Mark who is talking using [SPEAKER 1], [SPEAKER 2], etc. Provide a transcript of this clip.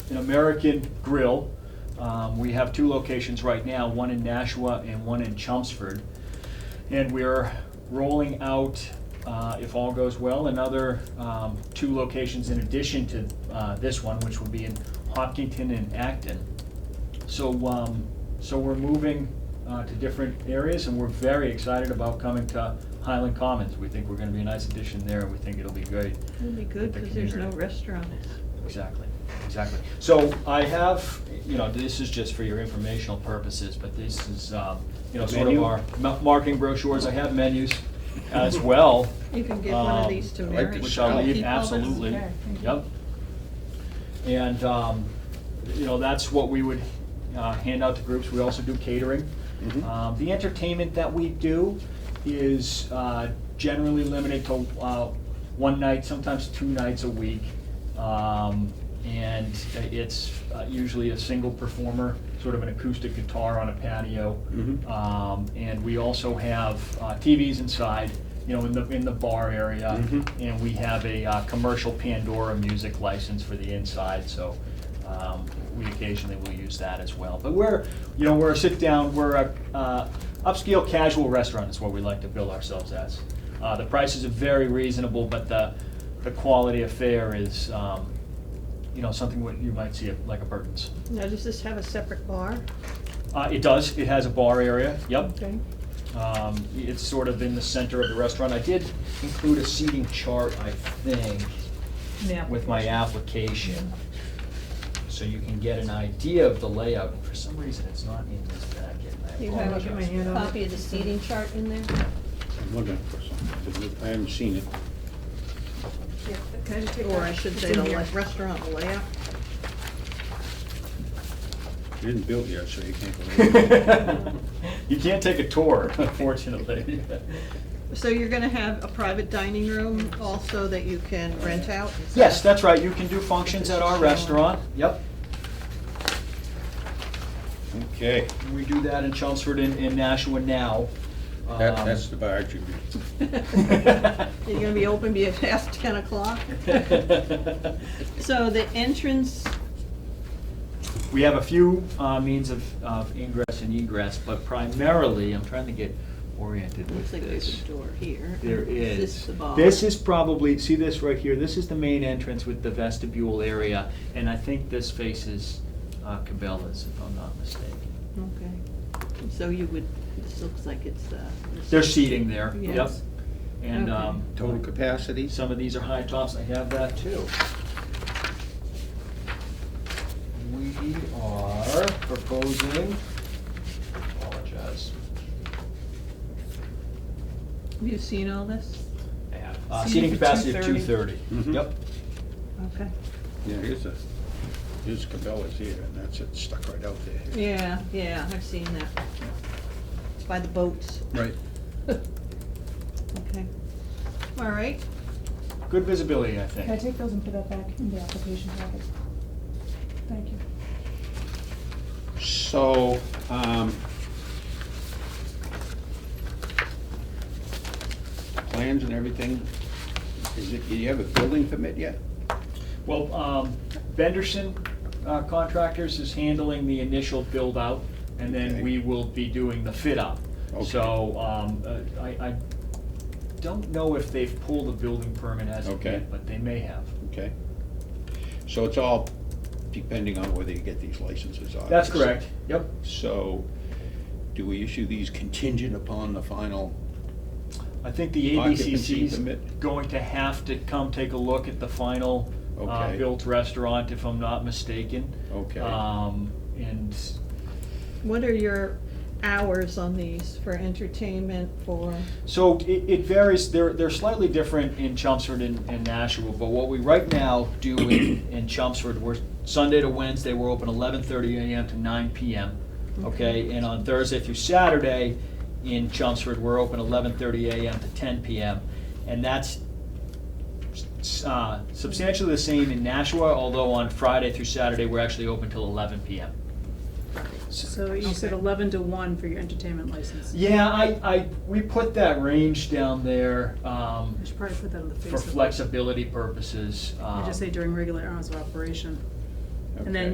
[SPEAKER 1] an American grill. Um, We have two locations right now, one in Nashua and one in Chelmsford. And we're rolling out, uh, if all goes well, another um, two locations in addition to uh, this one, which will be in Hopkinton and Acton. So, um, so we're moving uh, to different areas, and we're very excited about coming to Highland Commons. We think we're gonna be a nice addition there, and we think it'll be great.
[SPEAKER 2] It'll be good, because there's no restaurants.
[SPEAKER 1] Exactly, exactly. So I have, you know, this is just for your informational purposes, but this is, um, you know, sort of
[SPEAKER 3] Menu?
[SPEAKER 1] our ma- marketing brochures. I have menus as well.
[SPEAKER 2] You can give one of
[SPEAKER 1] um,
[SPEAKER 2] these to
[SPEAKER 3] I like
[SPEAKER 2] Mary.
[SPEAKER 3] the
[SPEAKER 1] Which I'll
[SPEAKER 3] shell.
[SPEAKER 1] leave,
[SPEAKER 2] Keep all this.
[SPEAKER 1] absolutely.
[SPEAKER 2] Okay, thank you.
[SPEAKER 1] Yep. And, um, you know, that's what we would uh, hand out to groups. We also do catering.
[SPEAKER 3] Mhm.
[SPEAKER 1] Um, The entertainment that we do is uh, generally limited to uh, one night, sometimes two nights a week. Um, And it's uh, usually a single performer, sort of an acoustic guitar on a patio.
[SPEAKER 3] Mhm.
[SPEAKER 1] Um, And we also have uh, TVs inside, you know, in the, in the bar area.
[SPEAKER 3] Mhm.
[SPEAKER 1] And we have a uh, commercial Pandora music license for the inside, so um, we occasionally will use that as well. But we're, you know, we're a sit-down, we're a uh, upscale casual restaurant is what we like to bill ourselves as. Uh, The prices are very reasonable, but the, the quality of fare is, um, you know, something what you might see at like a Burton's.
[SPEAKER 2] Now, does this have a separate bar?
[SPEAKER 1] Uh, It does, it has a bar area, yep.
[SPEAKER 2] Okay.
[SPEAKER 1] Um, It's sort of in the center of the restaurant. I did include a seating chart, I think,
[SPEAKER 2] Yeah.
[SPEAKER 1] with my application, so you can get an idea of the layout. And For some reason, it's not in this packet, and I
[SPEAKER 2] You have it in my
[SPEAKER 1] apologize.
[SPEAKER 2] hand on
[SPEAKER 4] Copy
[SPEAKER 2] it.
[SPEAKER 4] of the seating chart in there?
[SPEAKER 3] I'm looking for something. I haven't seen it.
[SPEAKER 2] Or I should say the le- restaurant layout.
[SPEAKER 3] It isn't built yet, so you can't go. in.
[SPEAKER 1] You can't take a tour, unfortunately.
[SPEAKER 2] So you're gonna have a private dining room also that you can rent out? Is
[SPEAKER 1] Yes,
[SPEAKER 2] that-
[SPEAKER 1] that's right, you can do functions at our restaurant, yep.
[SPEAKER 3] Okay,
[SPEAKER 1] We do that in Chelmsford and and Nashua now.
[SPEAKER 3] that,
[SPEAKER 1] Um,
[SPEAKER 3] that's the bar, Jimmy.
[SPEAKER 2] You're gonna be open be past ten o'clock? So the entrance,
[SPEAKER 1] We have a few uh, means of of ingress and egress, but primarily, I'm trying to get oriented with
[SPEAKER 2] looks like there's
[SPEAKER 1] this.
[SPEAKER 2] a door here.
[SPEAKER 1] There is.
[SPEAKER 2] Is this the bar?
[SPEAKER 1] This is probably, see this right here, this is the main entrance with the vestibule area, and I think this faces uh, Cabela's, if I'm not mistaken.
[SPEAKER 2] Okay. So you would, this looks like it's, uh. this-
[SPEAKER 1] There's seating there, yep.
[SPEAKER 2] Yes.
[SPEAKER 1] And
[SPEAKER 2] Okay.
[SPEAKER 1] um,
[SPEAKER 3] Total capacity?
[SPEAKER 1] Some of these are high tops, I have that too. We are proposing, apologize,
[SPEAKER 2] Have you seen all this?
[SPEAKER 1] I have, uh,
[SPEAKER 2] Seating
[SPEAKER 1] seating
[SPEAKER 2] for
[SPEAKER 1] capacity of two thirty.
[SPEAKER 3] Mhm.
[SPEAKER 1] Yep,
[SPEAKER 2] Okay.
[SPEAKER 3] Yeah, here's a, here's Cabela's here, and that's it, stuck right out there.
[SPEAKER 2] Yeah, yeah, I've seen that. It's by the boats.
[SPEAKER 3] Right.
[SPEAKER 2] Okay. All right.
[SPEAKER 1] good visibility, I
[SPEAKER 5] Can I
[SPEAKER 1] think.
[SPEAKER 5] take those and put that back in the application packet? Thank you.
[SPEAKER 3] So, um, plans and everything, is it, do you have a building permit yet?
[SPEAKER 1] Well, um, Benderson uh, Contractors is handling the initial build out, and then
[SPEAKER 3] Okay.
[SPEAKER 1] we will be doing the fit up.
[SPEAKER 3] Okay.
[SPEAKER 1] So, um, uh, I, I don't know if they've pulled a building permit as of
[SPEAKER 3] Okay.
[SPEAKER 1] yet, but they may have.
[SPEAKER 3] Okay. So it's all depending on whether you get these licenses, obviously.
[SPEAKER 1] That's correct, yep.
[SPEAKER 3] So, do we issue these contingent upon the final?
[SPEAKER 1] I think the
[SPEAKER 3] Occupancy
[SPEAKER 1] ABCC is
[SPEAKER 3] permit.
[SPEAKER 1] going to have to come take a look at the final uh,
[SPEAKER 3] Okay.
[SPEAKER 1] built restaurant, if I'm not mistaken.
[SPEAKER 3] Okay.
[SPEAKER 1] Um, And
[SPEAKER 2] What are your hours on these for entertainment, for,
[SPEAKER 1] so it it varies, they're they're slightly different in Chelmsford and and Nashua, but what we right now do in in Chelmsford, we're Sunday to Wednesday, we're open 11:30 AM to 9 PM, okay? And on Thursday through Saturday in Chelmsford, we're open 11:30 AM to 10 PM. And that's s- uh, substantially the same in Nashua, although on Friday through Saturday, we're actually open till 11 PM.
[SPEAKER 6] So you said eleven to one for your entertainment license?
[SPEAKER 1] Yeah, I, I, we put that range down there um,
[SPEAKER 6] I should probably put that on the face
[SPEAKER 1] for
[SPEAKER 6] of it.
[SPEAKER 1] flexibility purposes.
[SPEAKER 6] I just
[SPEAKER 1] um,
[SPEAKER 6] say during regular hours of operation. And then
[SPEAKER 3] Okay.